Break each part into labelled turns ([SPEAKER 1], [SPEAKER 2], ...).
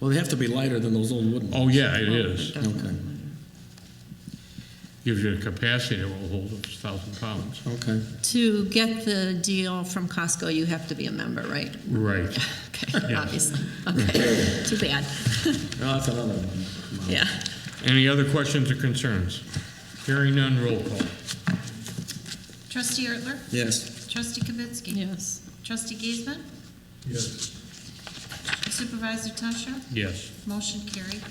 [SPEAKER 1] Well, they have to be lighter than those old wooden
[SPEAKER 2] Oh,
[SPEAKER 1] ones.
[SPEAKER 2] yeah, it is.
[SPEAKER 1] Okay,
[SPEAKER 2] Gives you the capacity that will hold up to 1,000 pounds.
[SPEAKER 1] okay.
[SPEAKER 3] To get the deal from Costco, you have to be a member, right?
[SPEAKER 2] Right.
[SPEAKER 3] Okay, obviously. Okay, too bad.
[SPEAKER 1] Oh, that's another one.
[SPEAKER 3] Yeah.
[SPEAKER 2] Any other questions or concerns? Hearing none, roll call.
[SPEAKER 4] Trustee Ertler?
[SPEAKER 1] Yes,
[SPEAKER 4] Trustee Kavitsky?
[SPEAKER 3] Yes.
[SPEAKER 4] Trustee Giesman?
[SPEAKER 2] Yes.
[SPEAKER 4] Supervisor Tusher?
[SPEAKER 2] Yes.
[SPEAKER 4] Motion carried.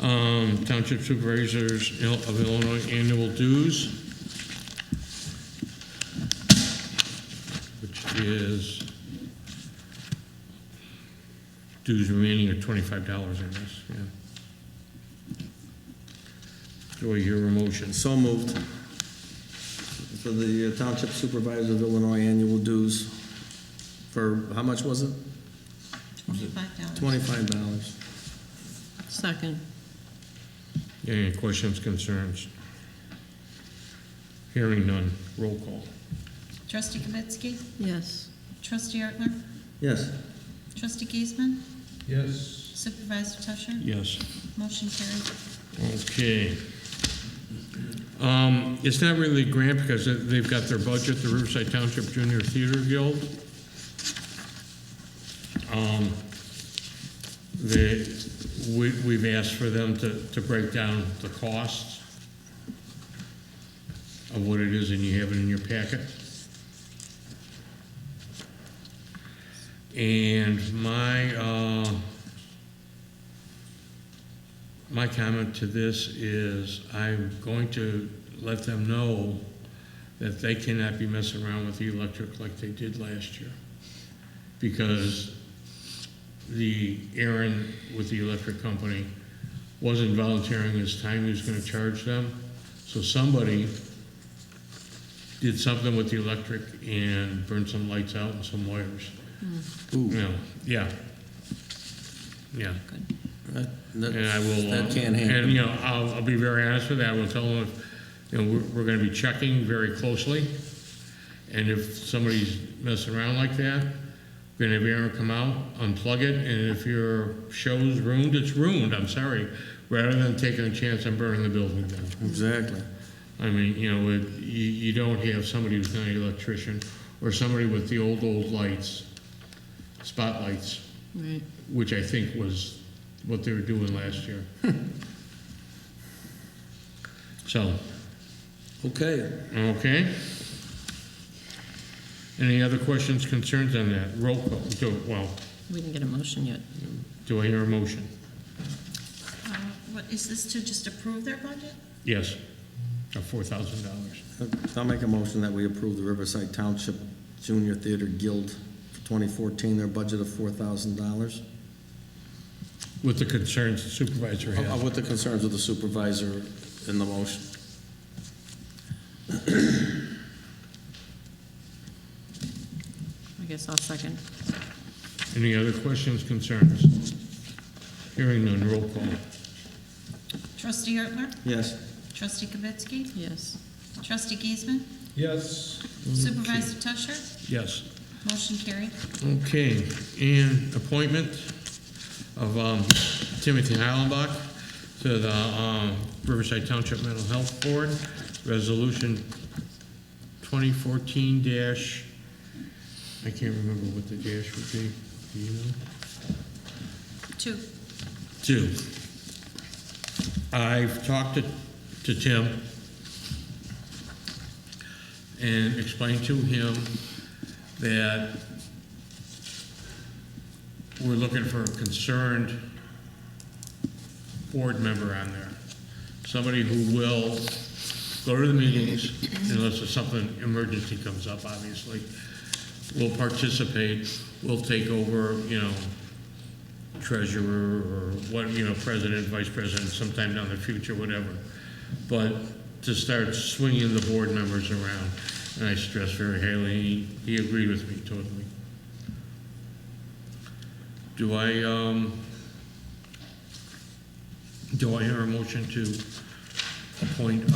[SPEAKER 2] Um, Township Supervisors Il- of Illinois annual dues, which is dues remaining are twenty-five dollars, I guess, yeah. Do I hear a motion?
[SPEAKER 1] so moved. For the uh, Township Supervisor of Illinois annual dues for, how much was it?
[SPEAKER 4] Twenty-five dollars.
[SPEAKER 1] Twenty-five dollars.
[SPEAKER 3] Second.
[SPEAKER 2] Any questions, concerns? Hearing none, roll call.
[SPEAKER 4] Trustee Kavitsky?
[SPEAKER 3] Yes.
[SPEAKER 4] Trustee Ertler?
[SPEAKER 1] Yes,
[SPEAKER 4] Trustee Giesman?
[SPEAKER 2] Yes.
[SPEAKER 4] Supervisor Tusher?
[SPEAKER 2] Yes.
[SPEAKER 4] Motion carried.
[SPEAKER 2] Okay. Um, It's not really a grant because they- they've got their budget, the Riverside Township Junior Theater Guild. Um, They, we- we've asked for them to, to break down the costs of what it is, and you have it in your packet. And my, uh, my comment to this is I'm going to let them know that they cannot be messing around with the electric like they did last year. Because the Aaron with the electric company wasn't volunteering his time he was gonna charge them. So somebody did something with the electric and burned some lights out and some wires.
[SPEAKER 1] Ooh.
[SPEAKER 2] Yeah, yeah. Yeah.
[SPEAKER 1] that,
[SPEAKER 2] And I will.
[SPEAKER 1] that
[SPEAKER 2] uh,
[SPEAKER 1] can't happen.
[SPEAKER 2] And, you know, I'll, I'll be very honest with that, I will tell them, you know, we're, we're gonna be checking very closely. And if somebody's messing around like that, we're gonna have Aaron come out, unplug it, and if your show's ruined, it's ruined, I'm sorry. Rather than taking a chance on burning the building down.
[SPEAKER 1] Exactly.
[SPEAKER 2] I mean, you know, it, you, you don't have somebody who's not an electrician, or somebody with the old, old lights, spotlights
[SPEAKER 3] Right.
[SPEAKER 2] which I think was what they were doing last year. So,
[SPEAKER 1] Okay,
[SPEAKER 2] okay. Any other questions, concerns on that? Roll call, do, well,
[SPEAKER 3] We didn't get a motion yet.
[SPEAKER 2] do I hear a motion?
[SPEAKER 4] Uh, What, is this to just approve their budget?
[SPEAKER 2] Yes, of four thousand dollars.
[SPEAKER 1] uh, I'll make a motion that we approve the Riverside Township Junior Theater Guild for twenty fourteen, their budget of four thousand dollars.
[SPEAKER 2] With the concerns the supervisor had.
[SPEAKER 1] Uh, With the concerns of the supervisor in the motion.
[SPEAKER 3] I guess I'll second.
[SPEAKER 2] Any other questions, concerns? Hearing none, roll call.
[SPEAKER 4] Trustee Ertler?
[SPEAKER 1] Yes,
[SPEAKER 4] Trustee Kavitsky?
[SPEAKER 3] Yes.
[SPEAKER 4] Trustee Giesman?
[SPEAKER 2] Yes.
[SPEAKER 4] Supervisor Tusher?
[SPEAKER 2] Yes.
[SPEAKER 4] Motion carried.
[SPEAKER 2] Okay, and appointment of um, Timothy Heilenbach to the um, Riverside Township Mental Health Board, Resolution 2014 dash, I can't remember what the dash would be, do you know?
[SPEAKER 4] Two.
[SPEAKER 2] Two. I've talked to, to Tim and explained to him that we're looking for a concerned board member on there. Somebody who will go to the meetings unless there's something, emergency comes up, obviously. Will participate, will take over, you know, treasurer or what, you know, president, vice president sometime down the future, whatever. But to start swinging the board members around, and I stress very highly, he agreed with me totally. Do I, um, do I hear a motion to appoint